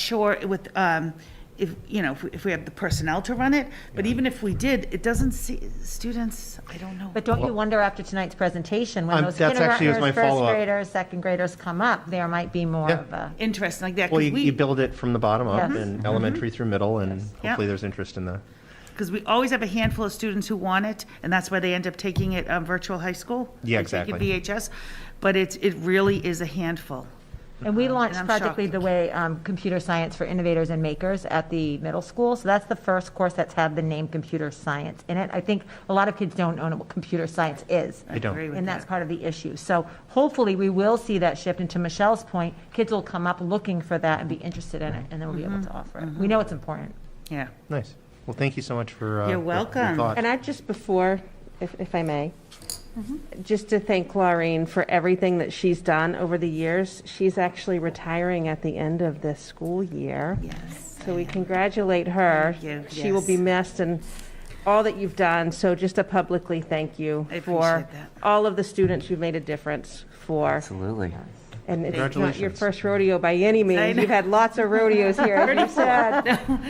sure with, um, if, you know, if we- if we have the personnel to run it, but even if we did, it doesn't see, students, I don't know. But don't you wonder after tonight's presentation, when Um, those that's actually was kindergartners, my first follow-up. graders, second graders come up, there might be more Yeah. of a, Interesting like that, Well, because you, you we, build it from the bottom up Yes. and elementary through middle and hopefully there's interest in the, because we always have a handful of students who want it, and that's why they end up taking it, um, virtual high school. Yeah, or taking exactly. VHS, but it's, it really is a handful. and we launched Uh-huh. I'm Project shocked. Lead the Way, um, Computer Science for Innovators and Makers at the middle school. So that's the first course that's had the name Computer Science in it. I think a lot of kids don't know what computer science is. I don't. Agree with And that's that. part of the issue. So hopefully, we will see that shift. And to Michelle's point, kids will come up looking for that and be interested in it, and then we'll be able Mm-hmm. to offer it. We know it's important. Yeah. Nice. Well, thank you so much for. uh, You're the- the welcome. thought. And I just before, if, if I may, Mm-hmm. just to thank Laureen for everything that she's done over the years. She's actually retiring at the end of this school year. Yes. So we congratulate her. Thank you, She will be yes. missed and all that you've done. So just to publicly thank you I for appreciate that. all of the students you've made a difference for. Absolutely. And it's not your Congratulations. first rodeo by any means. know. You've had lots of rodeos here, as you said.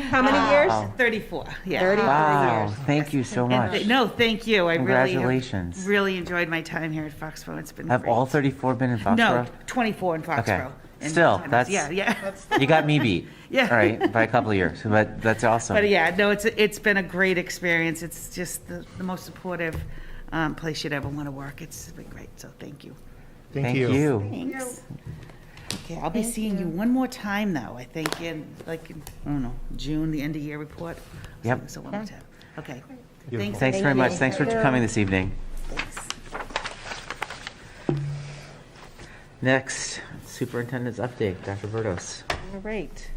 How many years? Thirty-four, yeah. 30 Wow, thank you so And th- much. No, thank you. I really Congratulations. Really enjoyed my time here at Foxborough. It's been Have great. all 34 been in no, Foxborough? 24 in Foxborough. And Still, sometimes- yeah, that's- yeah. You got me beat. Yeah. All right, by a couple of years, but that's awesome. but yeah, no, it's it's been a great experience. It's just the, the most supportive um, place you'd ever want to work. It's been great. So thank you. Thank you. Thanks. Okay, I'll be seeing you one more time though. I think in like in, I don't know June, the end of year report. Yep. So one more time. Okay. Thanks. Beautiful. Thanks very much. Thanks for coming this evening. Next, superintendent's update, Dr. Verdos. All right.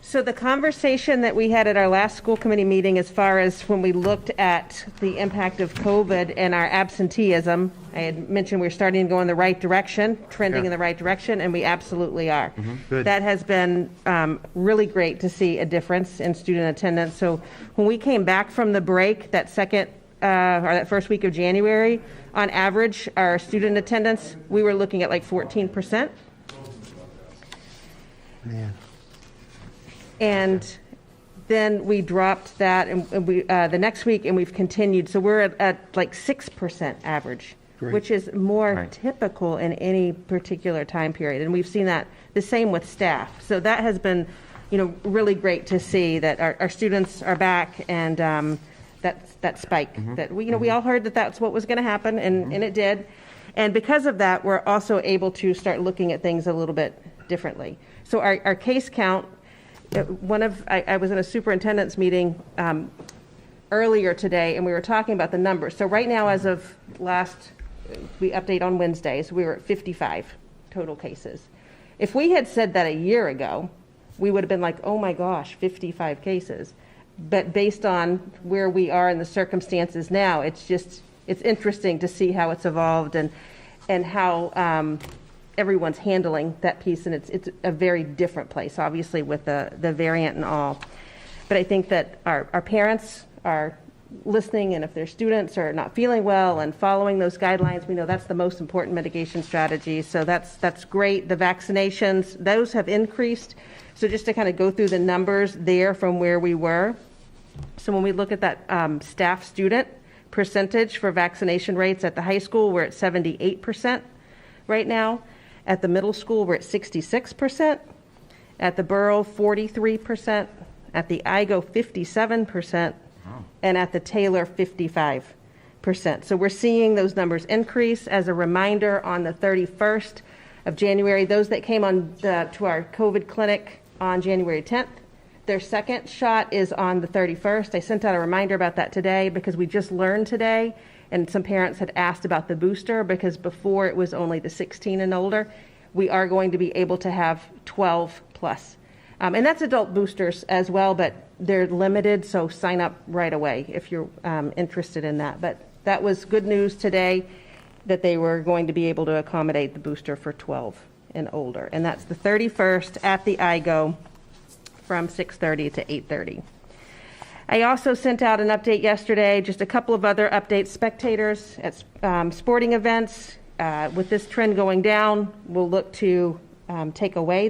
So the conversation that we had at our last school committee meeting, as far as when we looked at the impact of COVID and our absenteeism, I had mentioned we're starting to go in the right direction, trending in the right direction, and we absolutely are. Good. That has been um, really great to see a difference in student attendance. So when we came back from the break, that second, uh, or that first week of January, on average, our student attendance, we were looking at like 14%. Man. And then we dropped that and and we, uh, the next week, and we've continued. So we're at, at like 6% average, which is more Right. typical in any particular time period. And we've seen that, the same with staff. So that has been, you know, really great to see that our, our students are back and um, that, that spike. That, we you know, we all heard that that's what was going to happen and, and it did. And because of that, we're also able to start looking at things a little bit differently. So our, our case count uh, one of, I, I was in a superintendent's meeting um, earlier today, and we were talking about the numbers. So right now, as of last, we update on Wednesdays, we were at 55 total cases. If we had said that a year ago, we would have been like, oh my gosh, 55 cases. But based on where we are and the circumstances now, it's just, it's interesting to see how it's evolved and, and how, um, everyone's handling that piece, and it's, it's a very different place, obviously, with the, the variant and all. But I think that our, our parents are listening, and if their students are not feeling well and following those guidelines, we know that's the most important mitigation strategy. So that's, that's great. The vaccinations, those have increased. So just to kind of go through the numbers there from where we were. So when we look at that um, staff student percentage for vaccination rates at the high school, we're at 78% right now. At the middle school, we're at 66%. At the borough, 43%. At the IGO, 57%. And at the Taylor, 55%. So we're seeing those numbers increase. As a reminder, on the 31st of January, those that came on the, to our COVID clinic on January 10th, their second shot is on the 31st. I sent out a reminder about that today because we just learned today, and some parents had asked about the booster because before it was only the 16 and older. We are going to be able to have 12 plus. Um, and that's adult boosters as well, but they're limited, so sign up right away if you're um, interested in that. But that was good news today that they were going to be able to accommodate the booster for 12 and older. And that's the 31st at the IGO from 6:30 to 8:30. I also sent out an update yesterday, just a couple of other updates, spectators at um, sporting events. uh, With this trend going down, we'll look to um, take away